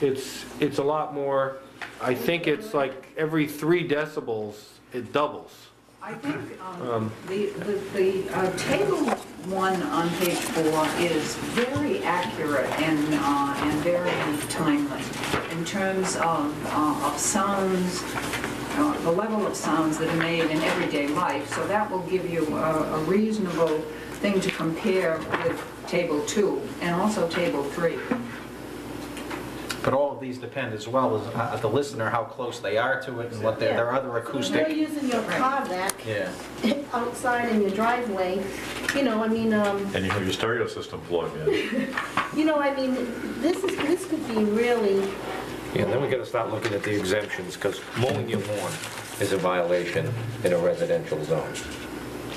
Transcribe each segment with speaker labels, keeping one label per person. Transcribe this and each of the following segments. Speaker 1: It's, it's a lot more, I think it's like every three decibels, it doubles.
Speaker 2: I think um, the, the, the uh, table one on page four is very accurate and, uh, and very timely in terms of, uh, of sounds, uh, the level of sounds that are made in everyday life. So that will give you a a reasonable thing to compare with table two and also table three.
Speaker 3: But all of these depend as well as uh, the listener, how close they are to it and what their, their other
Speaker 4: If you're
Speaker 3: acoustic.
Speaker 4: using your Kodak
Speaker 3: Yeah.
Speaker 4: outside in your driveway, you know, I mean, um,
Speaker 5: And you have your stereo system plugged in.
Speaker 4: you know, I mean, this is, this could be really,
Speaker 6: Yeah, then we gotta start looking at the exemptions, because mowing your lawn is a violation in a residential zone.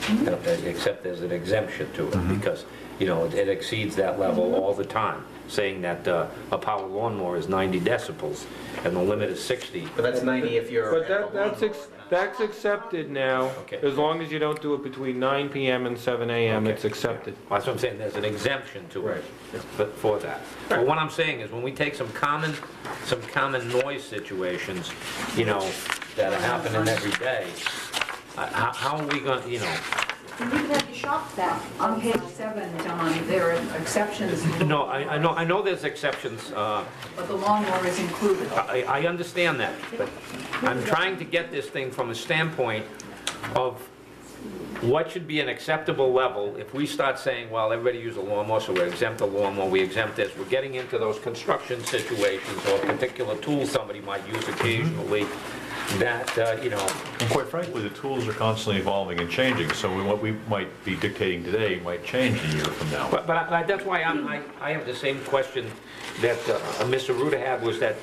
Speaker 6: And, uh, Except there's an exemption to it, because, you know, it- it exceeds that level all the time, saying that uh, a power lawnmower is 90 decibels, and the limit is 60.
Speaker 3: But that's 90 if you're.
Speaker 1: But that, that's, ex- that's accepted now,
Speaker 6: Okay.
Speaker 1: as long as you don't do it between 9 PM and 7 AM, it's accepted.
Speaker 6: Well, That's what I'm saying, there's an exemption to
Speaker 1: Right.
Speaker 6: it for- for that. But what I'm saying is, when we take some common, some common noise situations, you know, that are happening every day, uh, how how are we gonna, you know,
Speaker 4: you can have your shop back.
Speaker 2: On page seven, Don, there are exceptions,
Speaker 6: No, I, I know, I know there's exceptions, uh,
Speaker 2: but the lawnmower is included.
Speaker 6: I, I understand that, but I'm trying to get this thing from a standpoint of what should be an acceptable level if we start saying, well, everybody use a lawnmower, so we exempt the lawnmower, we exempt this, we're getting into those construction situations or particular tools somebody might use occasionally, that, uh, you know,
Speaker 5: And quite frankly, the tools are constantly evolving and changing, so we- what we might be dictating today might change a year from now.
Speaker 6: But, but I- I- that's why I'm, I, I have the same question that uh, Mr. Ruda had, was that,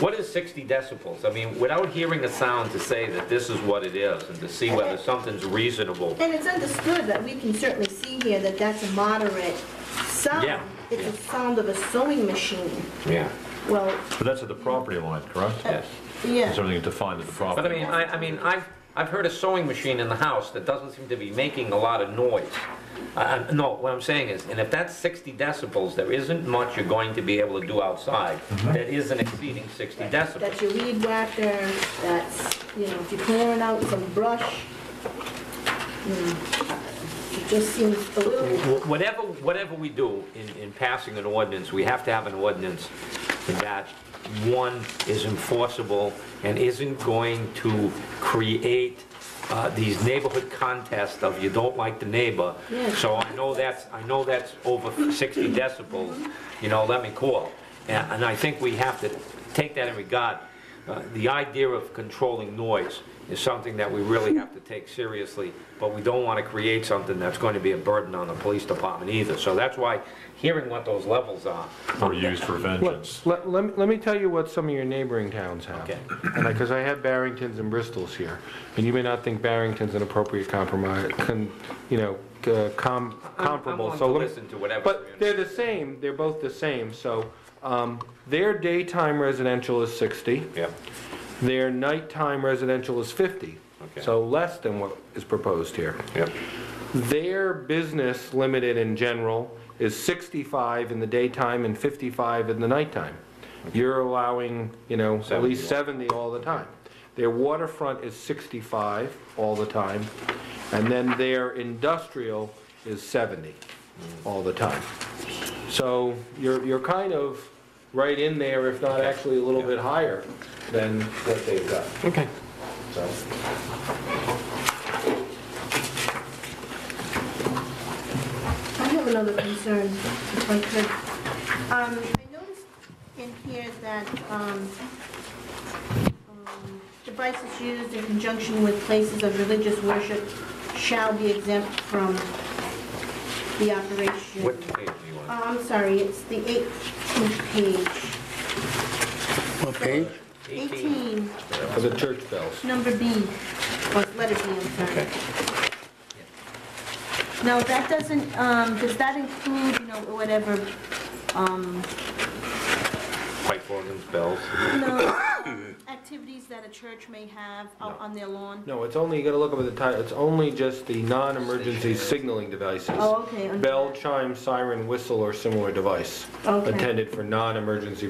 Speaker 6: what is 60 decibels? I mean, without hearing a sound to say that this is what it is, and to see whether something's reasonable.
Speaker 4: And it's understood that we can certainly see here that that's a moderate sound.
Speaker 6: Yeah.
Speaker 4: It's a sound of a sewing machine.
Speaker 6: Yeah.
Speaker 4: Well,
Speaker 5: But that's at the property line, correct?
Speaker 6: Yes.
Speaker 4: yeah.
Speaker 5: It's everything defined at the
Speaker 6: But I mean,
Speaker 5: property.
Speaker 6: I, I mean, I've, I've heard a sewing machine in the house that doesn't seem to be making a lot of noise. Uh, no, what I'm saying is, and if that's 60 decibels, there isn't much you're going to be able to do outside that isn't exceeding 60 decibels.
Speaker 4: That's your weed whacker, that's, you know, if you're clearing out some brush, you know, it just seems a little,
Speaker 6: Wh- Whatever, whatever we do in, in passing an ordinance, we have to have an ordinance that, one, is enforceable and isn't going to create uh, these neighborhood contests of you don't like the neighbor.
Speaker 4: Yeah.
Speaker 6: So I know that's, I know that's over 60 decibels, you know, let me call. And and I think we have to take that in regard. Uh, The idea of controlling noise is something that we really have to take seriously, but we don't want to create something that's going to be a burden on the police department either. So that's why hearing what those levels are.
Speaker 5: Or used for vengeance.
Speaker 1: Let, let- let, me- let me tell you what some of your neighboring towns have.
Speaker 6: Okay.
Speaker 1: And I, because I have Barringtons and Bristols here, and you may not think Barrington's an appropriate compromise, con, you know, uh, com,
Speaker 6: I'm-
Speaker 1: comparable,
Speaker 6: I'm willing
Speaker 1: so
Speaker 6: to
Speaker 1: let me.
Speaker 6: listen to whatever.
Speaker 1: But they're the same, they're both the same, so, um, their daytime residential is sixty,
Speaker 6: Yep.
Speaker 1: their nighttime residential is fifty.
Speaker 6: Okay.
Speaker 1: So less than what is proposed here.
Speaker 6: Yep.
Speaker 1: Their business limited in general is 65 in the daytime and 55 in the nighttime. You're allowing, you know, at least 70 all the time. Their waterfront is 65 all the time, and then their industrial is 70 all the time. So you're, you're kind of right in there, if not actually a little bit higher than what they've got,
Speaker 6: Okay.
Speaker 1: so.
Speaker 4: I have another concern, if I could. Um, I noticed in here that, um, um, devices used in conjunction with places of religious worship shall be exempt from the operation.
Speaker 6: What page do you want?
Speaker 4: Oh, I'm sorry, it's the 18th page.
Speaker 7: What page?
Speaker 4: 18,
Speaker 1: For the church bells.
Speaker 4: number B, or letter B, I'm sorry. Now, that doesn't, um, does that include, you know, whatever, um,
Speaker 6: Pipe organs, bells.
Speaker 4: no, activities that a church may have out on their lawn?
Speaker 1: No, it's only, you gotta look up at the title, it's only just the non-emergency signaling devices.
Speaker 4: Oh, okay, under
Speaker 1: Bell,
Speaker 4: that.
Speaker 1: chime, siren, whistle, or similar device.
Speaker 4: Okay.
Speaker 1: Intended for non-emergency